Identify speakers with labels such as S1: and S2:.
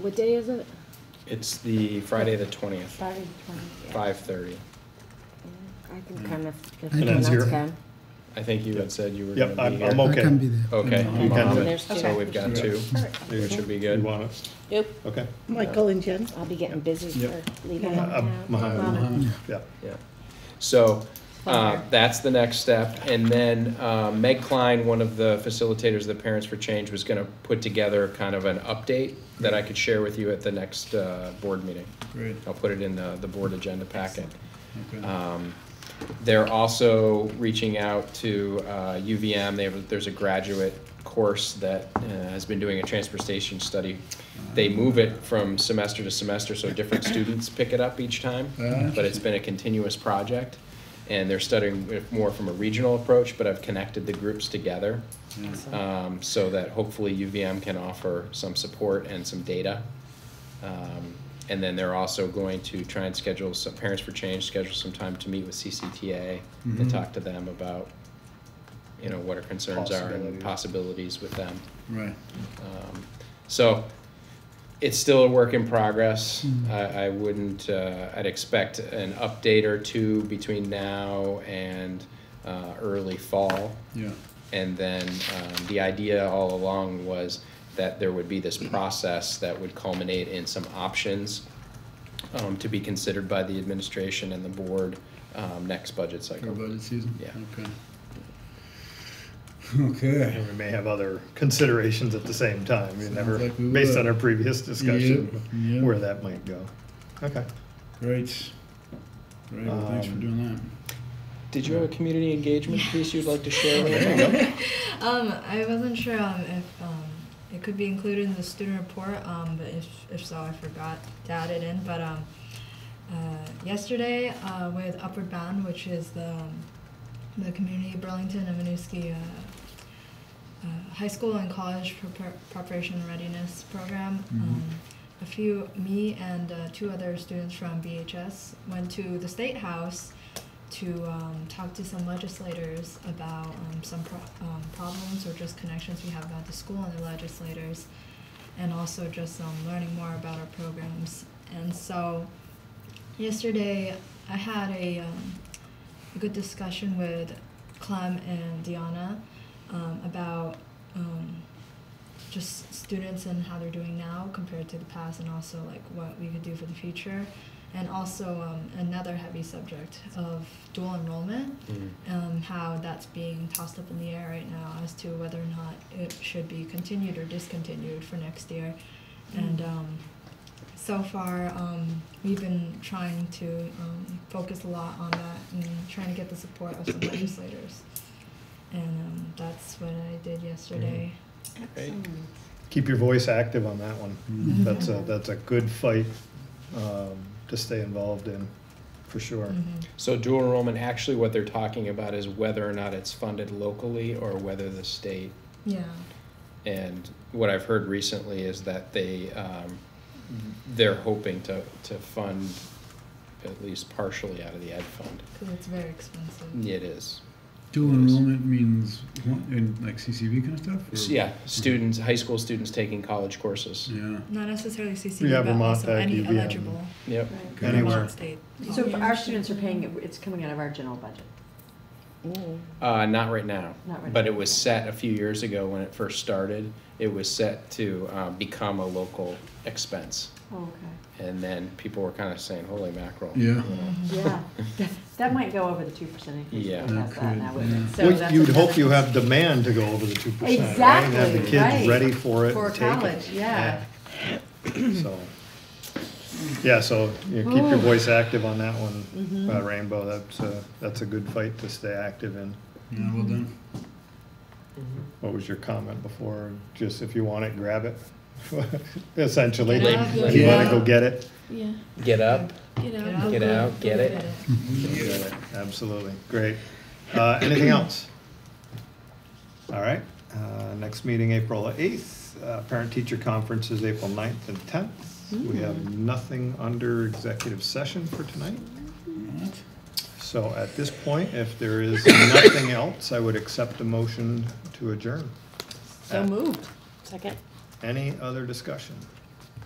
S1: What day is it?
S2: It's the Friday the twentieth,
S1: Friday, the 20th, yeah.
S2: five thirty.
S1: I can come if, if
S3: I
S1: no
S3: can
S1: one
S3: zero.
S1: else can.
S2: I think you had said you were
S4: Yep,
S2: gonna be
S4: I'm- Mm-hmm.
S2: here.
S4: I'm Okay.
S3: I can be there.
S2: Okay, I'm
S3: I'm okay.
S2: on
S1: So
S2: it.
S1: there's two.
S2: So we've got two,
S4: You
S2: which should be
S4: You
S2: good.
S4: want us?
S5: Yep.
S4: Okay.
S5: Michael and Jen.
S1: I'll be getting busy
S4: Yep.
S1: for leaving.
S5: Yeah.
S4: Uh, Mohammed,
S3: Yeah.
S4: yeah.
S2: Yeah. So uh,
S1: Fire.
S2: that's the next step. And then uh, Meg Klein, one of the facilitators of the Parents for Change, was going to put together kind of an update that I could share with you at the next uh, board meeting.
S3: Great.
S2: I'll put it in the, the board agenda packet.
S3: Okay.
S2: Um, They're also reaching out to uh, UVM. They have, there's a graduate course that uh, has been doing a transportation study. They move it from semester to semester, so different students pick it up each time.
S3: Ah.
S2: But it's been a continuous project, and they're studying it more from a regional approach, but I've connected the groups together um, so that hopefully UVM can offer some support and some data. Um, and then they're also going to try and schedule some Parents for Change, schedule some time to meet with CCTA and
S3: Mhm.
S2: talk to them about, you know, what our concerns are and
S4: Possibilities.
S2: possibilities with them.
S3: Right.
S2: Um, so it's still a work in progress. I, I wouldn't, uh, I'd expect an update or two between now and uh, early fall.
S3: Yeah.
S2: And then um, the idea all along was that there would be this process that would culminate in some options um, to be considered by the administration and the board um, next budget
S3: For
S2: cycle.
S3: budget season.
S2: Yeah.
S3: Okay. Okay.
S4: And we may have other considerations at the same time, you never,
S3: Sounds like we
S4: based
S3: will.
S4: on our previous discussion,
S3: Yep, yep.
S4: where that might go. Okay.
S3: Great. Great. Well, thanks for
S4: Um,
S3: doing
S2: Did you have a community engagement piece you'd like to share?
S4: There
S2: Lynn?
S4: you go.
S6: Um, I wasn't sure um, if um, it could be included in the student report, um, but if, if so, I forgot to add it in. But um, uh, yesterday uh, with Upward Bound, which is the, um, the community Burlington and Winooski uh, uh, high school and college prepar- preparation and readiness program. Um, a few, me and uh, two other students from BHS went to the State House to um, talk to some legislators about um, some pro- um, problems or just connections we have about the school and the legislators, and also just um, learning more about our programs. And so, yesterday I had a, um, a good discussion with Clem and Deanna um, about um, just students and how they're doing now compared to the past, and also like what we could do for the future. And also um, another heavy subject of dual enrollment,
S2: Mhm.
S6: um, how that's being tossed up in the air right now as to whether or not it should be continued or discontinued for next year. And um, so far, um, we've been trying to um, focus a lot on that and trying to get the support of some legislators. And um, that's what I did yesterday.
S1: Excellent.
S4: Keep your voice active on that one.
S3: Mhm.
S4: That's a, that's a good fight um, to stay involved in, for sure.
S3: Mm-hmm.
S6: Mhm.
S2: So dual enrollment, actually what they're talking about is whether or not it's funded locally or whether the state
S6: Yeah.
S2: And what I've heard recently is that they, um, they're hoping to, to fund at least partially out of the ed fund.
S6: Because it's very expensive.
S2: It is.
S3: that. Dual
S2: Yes.
S3: enrollment means one- in like CCV kind of stuff.
S2: S-
S3: or-
S2: Yeah, students, high school students taking college courses.
S3: Yeah.
S6: Not necessarily CCD,
S4: Yeah,
S6: but
S4: Vermont
S6: also
S4: Tech,
S6: any
S4: UVM.
S6: eligible
S2: Yep.
S3: Okay.
S4: Anywhere.
S6: Vermont state.
S7: So if our students are paying, it, it's coming out of our general budget.
S1: Mm.
S2: Uh, not right now.
S7: Not right
S2: But
S7: now.
S2: it was set a few years ago when it first started. It was set to, uh, become a local expense.
S7: Oh, okay.
S2: And then people were kind of saying, holy mackerel.
S3: Yeah.
S7: Yeah, That- that might go over the two percent increase.
S2: Yeah.
S7: if we pass that now, wouldn't it?
S3: Yeah.
S7: So
S4: Well,
S7: that's
S4: You'd hope
S7: another-
S4: you have demand to go over the two percent, right? And Have the
S7: Exactly,
S4: kids
S7: right.
S4: ready for it
S7: For
S4: and take it.
S7: college, yeah.
S4: Yeah. So, yeah, so you know, keep your voice active on that
S7: Mm-hmm.
S4: one, uh, Rainbow. That's a, that's a good fight to stay active in.
S3: Yeah. Well done.
S4: What was your comment before? Just if you want it, grab it, essentially.
S5: Get up,
S4: If you wanna
S3: yeah.
S4: go get it,
S5: Yeah.
S2: Get up,
S5: Get out.
S2: Get out, get it.
S4: go get it. Absolutely, great. Uh, anything else? All right, uh, next meeting, April eighth, uh, parent-teacher conference is April 9th and tenth. We
S1: Mm.
S4: have nothing under executive session for tonight.
S3: What?
S4: So at this point, if there is nothing else, I would accept a motion to adjourn.
S1: So moved. Second.
S4: Any other discussion?